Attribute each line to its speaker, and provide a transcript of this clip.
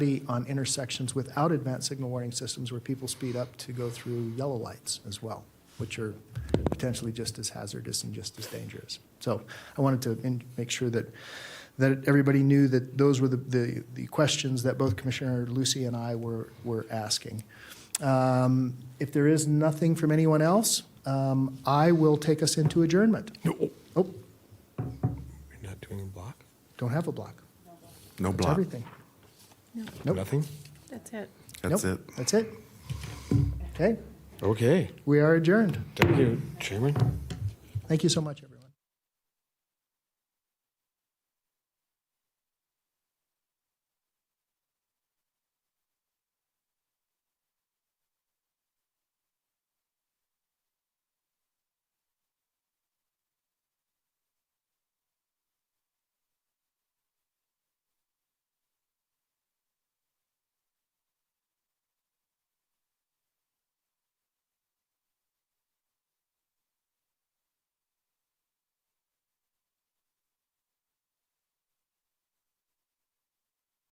Speaker 1: be on intersections without advanced signal warning systems where people speed up to go through yellow lights as well, which are potentially just as hazardous and just as dangerous. So I wanted to in- make sure that, that everybody knew that those were the, the, the questions that both Commissioner Lucy and I were, were asking. Um, If there is nothing from anyone else, um, I will take us into adjournment. Oh,
Speaker 2: You're not doing a block?
Speaker 1: don't have a block.
Speaker 3: No
Speaker 1: That's
Speaker 3: block.
Speaker 1: everything. Nope.
Speaker 2: Nothing?
Speaker 4: That's it.
Speaker 3: That's
Speaker 1: Nope,
Speaker 3: it.
Speaker 1: That's it. Okay,
Speaker 2: Okay.
Speaker 1: we are adjourned.
Speaker 2: Thank you, Chairman.
Speaker 1: Thank you so much. everyone.